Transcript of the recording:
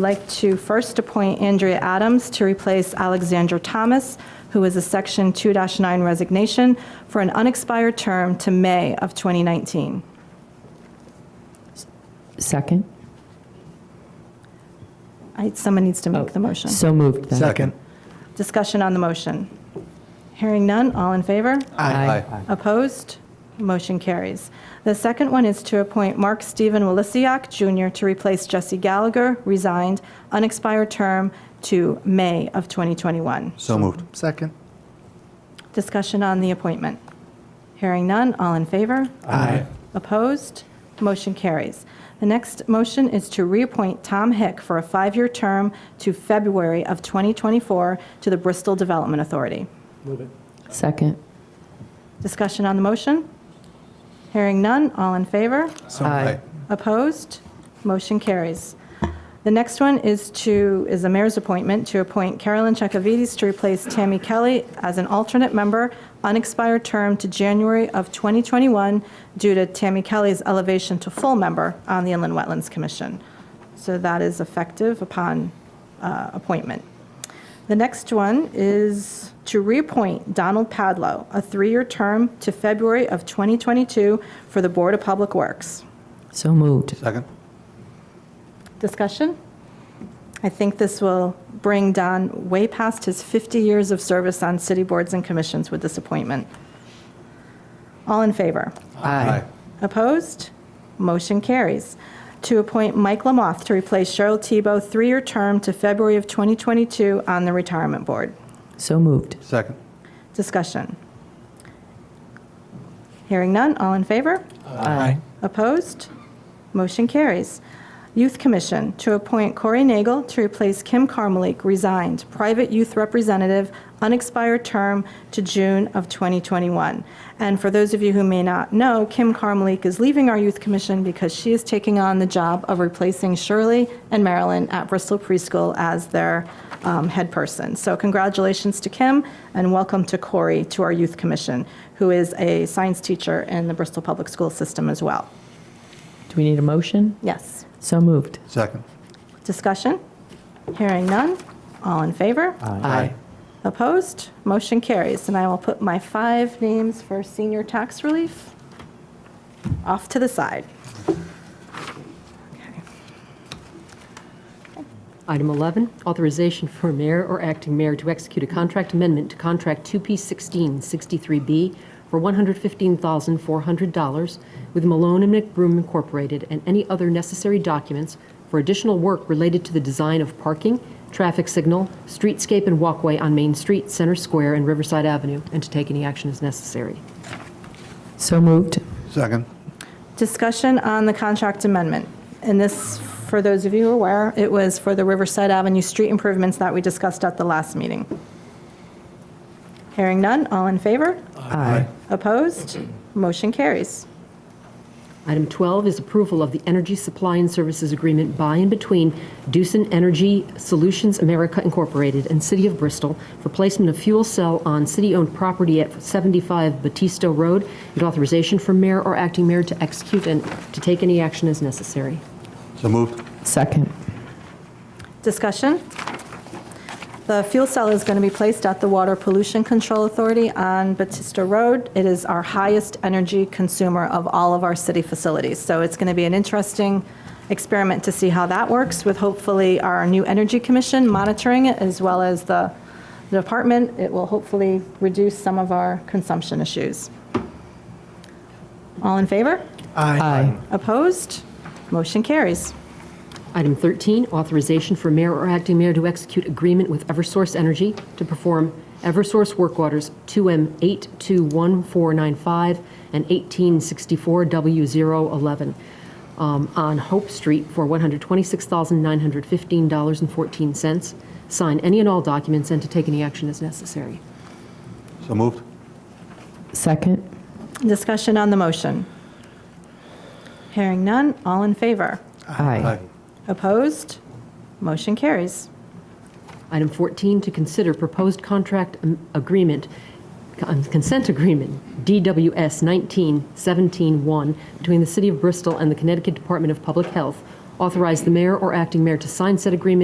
like to first appoint Andrea Adams to replace Alexandra Thomas, who is a Section 2-9 resignation, for an unexpired term to May of 2019. Second? I- Someone needs to make the motion. Oh, So moved then. Second. Discussion on the motion. Hearing none, all in favor? Aye. Opposed? Motion carries. The second one is to appoint Mark Stephen Willisiak Jr. to replace Jesse Gallagher, resigned, unexpired term to May of 2021. So moved. Second. Discussion on the appointment. Hearing none, all in favor? Aye. Opposed? Motion carries. The next motion is to reappoint Tom Hick for a five-year term to February of 2024 to the Bristol Development Authority. Second? Discussion on the motion? Hearing none, all in favor? So Aye. Opposed? Motion carries. The next one is to, is the mayor's appointment to appoint Carolyn Chakavides to replace Tammy Kelly as an alternate member, unexpired term to January of 2021 due to Tammy Kelly's elevation to full member on the Inland Wetlands Commission. So that is effective upon uh, appointment. The next one is to reappoint Donald Padlo, a three-year term to February of 2022 for the Board of Public Works. So moved. Second. Discussion? I think this will bring Don way past his 50 years of service on city boards and commissions with this appointment. All in favor? Aye. Opposed? Motion carries. To appoint Mike Lamoth to replace Cheryl Tebow, three-year term to February of 2022 on the Retirement Board. So moved. Second. Discussion? Hearing none, all in favor? Aye. Opposed? Motion carries. Youth Commission, to appoint Corey Nagel to replace Kim Carmelik, resigned, private youth representative, unexpired term to June of 2021. And for those of you who may not know, Kim Carmelik is leaving our Youth Commission because she is taking on the job of replacing Shirley and Marilyn at Bristol Preschool as their um, head person. So congratulations to Kim, and welcome to Corey to our Youth Commission, who is a science teacher in the Bristol Public School System as well. Do we need a motion? Yes. So moved. Second. Discussion? Hearing none. All in favor? Aye. Opposed? Motion carries. And I will put my five names for senior tax relief off to the side. Okay. Item 11, authorization for mayor or acting mayor to execute a contract amendment to contract 2P1663B for $115,400 with Malone and McBroom Incorporated and any other necessary documents for additional work related to the design of parking, traffic signal, streetscape and walkway on Main Street, Center Square, and Riverside Avenue, and to take any action as necessary. So moved. Second. Discussion on the contract amendment. And this, for those of you who are aware, it was for the Riverside Avenue street improvements that we discussed at the last meeting. Hearing none. All in favor? Aye. Opposed? Motion carries. Item 12 is approval of the Energy Supply and Services Agreement by and between Doosan Energy Solutions America Incorporated and City of Bristol for placement of fuel cell on city-owned property at 75 Batista Road, and authorization for mayor or acting mayor to execute and to take any action as necessary. So moved. Second. Discussion? The fuel cell is going to be placed at the Water Pollution Control Authority on Batista Road. It is our highest energy consumer of all of our city facilities. So it's going to be an interesting experiment to see how that works with hopefully our new Energy Commission monitoring it as well as the the department. It will hopefully reduce some of our consumption issues. All in favor? Aye. Opposed? Motion carries. Item 13, authorization for mayor or acting mayor to execute agreement with Eversource Energy to perform Eversource work orders 2M821495 and 1864W011 um, on Hope Street for $126,915.14. Sign any and all documents and to take any action as necessary. So moved. Second. Discussion on the motion. Hearing none, all in favor? Aye. Opposed? Motion carries. Item 14, to consider proposed contract am- agreement, con- consent agreement, DWS 19-17-1, between the City of Bristol and the Connecticut Department of Public Health Authorize the mayor or acting mayor to sign said agreement